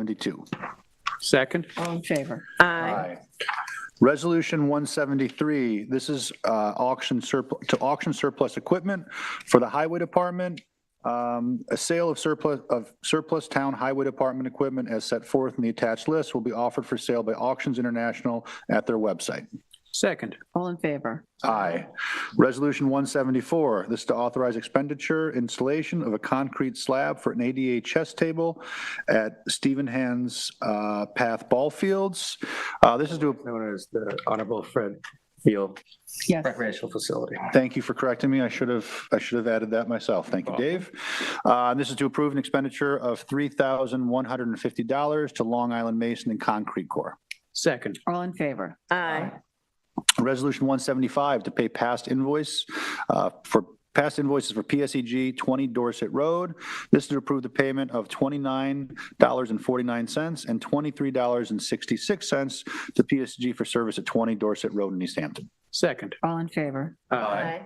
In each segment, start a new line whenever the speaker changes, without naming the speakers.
72.
Second?
All in favor?
Aye.
Resolution 173, this is uh, auction surplus, to auction surplus equipment for the Highway Department. Um, A sale of surplus, of surplus town Highway Department equipment as set forth in the attached list will be offered for sale by Auctions International at their website.
Second?
All in favor?
Aye. Resolution 174, this is to authorize expenditure installation of a concrete slab for an ADA chess table at Stephen Hand's uh, Path Ball Fields. Uh, This is to,
Known as the Honorable Fred Field
Yes.
recreational facility.
thank you for correcting me, I should have, I should have added that myself, thank you, Dave. Uh, This is to approve an expenditure of $3,150 to Long Island Mason and Concrete Corps.
Second?
All in favor?
Aye.
Resolution 175 to pay past invoice uh, for, past invoices for PSEG 20 Dorset Road. This is to approve the payment of $29.49 and $23.66 to PSG for service at 20 Dorset Road in East Hampton.
Second?
All in favor?
Aye.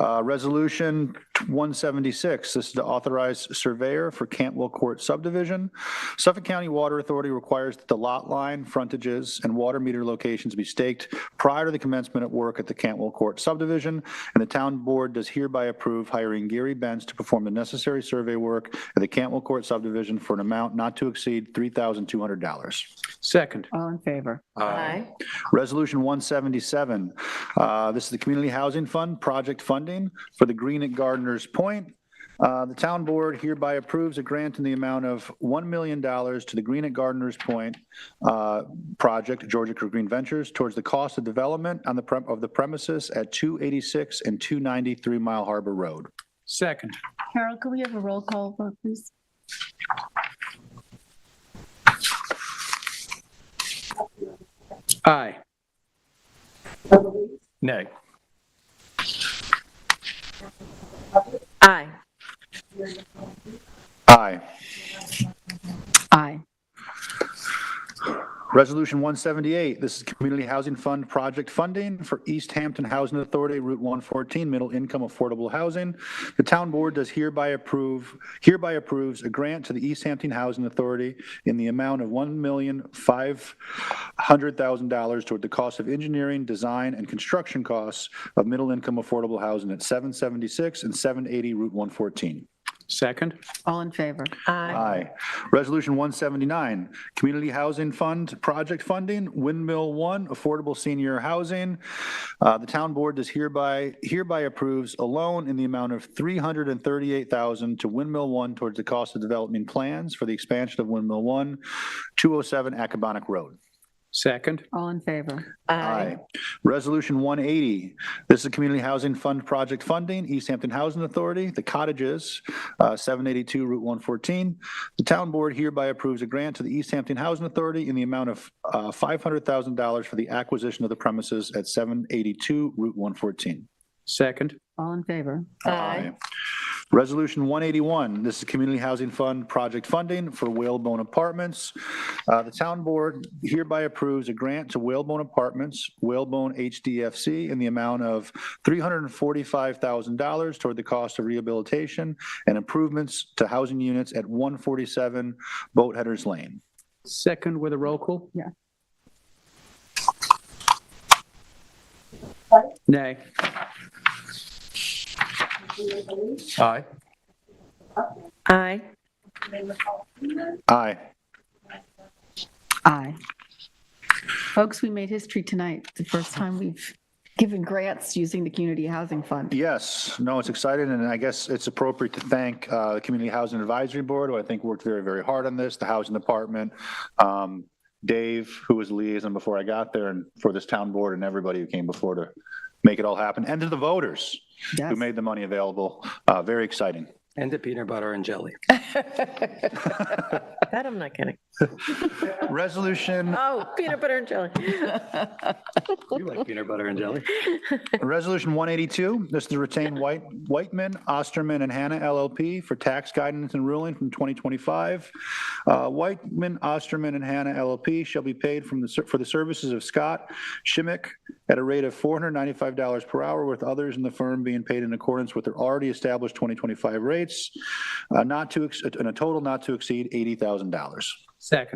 Uh, Resolution 176, this is to authorize surveyor for Cantwell Court subdivision. Suffolk County Water Authority requires that the lot line, frontages, and water meter locations be staked prior to the commencement of work at the Cantwell Court subdivision, and the town board does hereby approve hiring Gary Benz to perform the necessary survey work at the Cantwell Court subdivision for an amount not to exceed $3,200.
Second?
All in favor?
Aye.
Resolution 177, uh, this is the Community Housing Fund project funding for the Green at Gardeners Point. Uh, The town board hereby approves a grant in the amount of $1 million to the Green at Gardeners Point uh, project, Georgia Creek Green Ventures, towards the cost of development on the, prem- of the premises at 286 and 293 Mile Harbor Road.
Second?
Carol, could we have a roll call vote, please?
Aye. Nay.
Aye.
Aye.
Aye.
Resolution 178, this is Community Housing Fund project funding for East Hampton Housing Authority Route 114 Middle Income Affordable Housing. The town board does hereby approve, hereby approves a grant to the East Hampton Housing Authority in the amount of $1,500,000 toward the cost of engineering, design, and construction costs of middle income affordable housing at 776 and 780 Route 114.
Second?
All in favor?
Aye.
Aye. Resolution 179, Community Housing Fund Project Funding, Windmill One, Affordable Senior Housing. Uh, The town board does hereby, hereby approves a loan in the amount of 338000 to Windmill One towards the cost of development plans for the expansion of Windmill One, 207 Acabonic Road.
Second?
All in favor?
Aye.
Resolution 180, this is a Community Housing Fund project funding, East Hampton Housing Authority, the cottages, uh, 782 Route 114. The town board hereby approves a grant to the East Hampton Housing Authority in the amount of uh, $500,000 for the acquisition of the premises at 782 Route 114.
Second?
All in favor?
Aye.
Resolution 181, this is Community Housing Fund project funding for Whalebone Apartments. Uh, The town board hereby approves a grant to Whalebone Apartments, Whalebone HDFC, in the amount of $345,000 toward the cost of rehabilitation and improvements to housing units at 147 Boatheaders Lane.
Second with a roll call?
Yeah.
Nay. Aye.
Aye.
Aye.
Aye. Folks, we made history tonight, the first time we've given grants using the Community Housing Fund.
Yes, no, it's exciting, and I guess it's appropriate to thank uh, the Community Housing Advisory Board, who I think worked very, very hard on this, the Housing Department, um, Dave, who was liaison before I got there, and for this town board and everybody who came before to make it all happen, and to the voters who
Yes.
made the money available. Uh, Very exciting.
And the peanut butter and jelly.
That I'm not kidding.
Resolution,
Oh, peanut butter and jelly.
You like peanut butter and jelly?
Resolution 182, this is to retain White, Whiteman, Osterman, and Hannah LLP for tax guidance and ruling from 2025. Uh, Whiteman, Osterman, and Hannah LLP shall be paid from the, ser- for the services of Scott Schimick at a rate of $495 per hour, with others in the firm being paid in accordance with their already established 2025 rate States, uh, not to, ex- in a total not to exceed $80,000.
Second.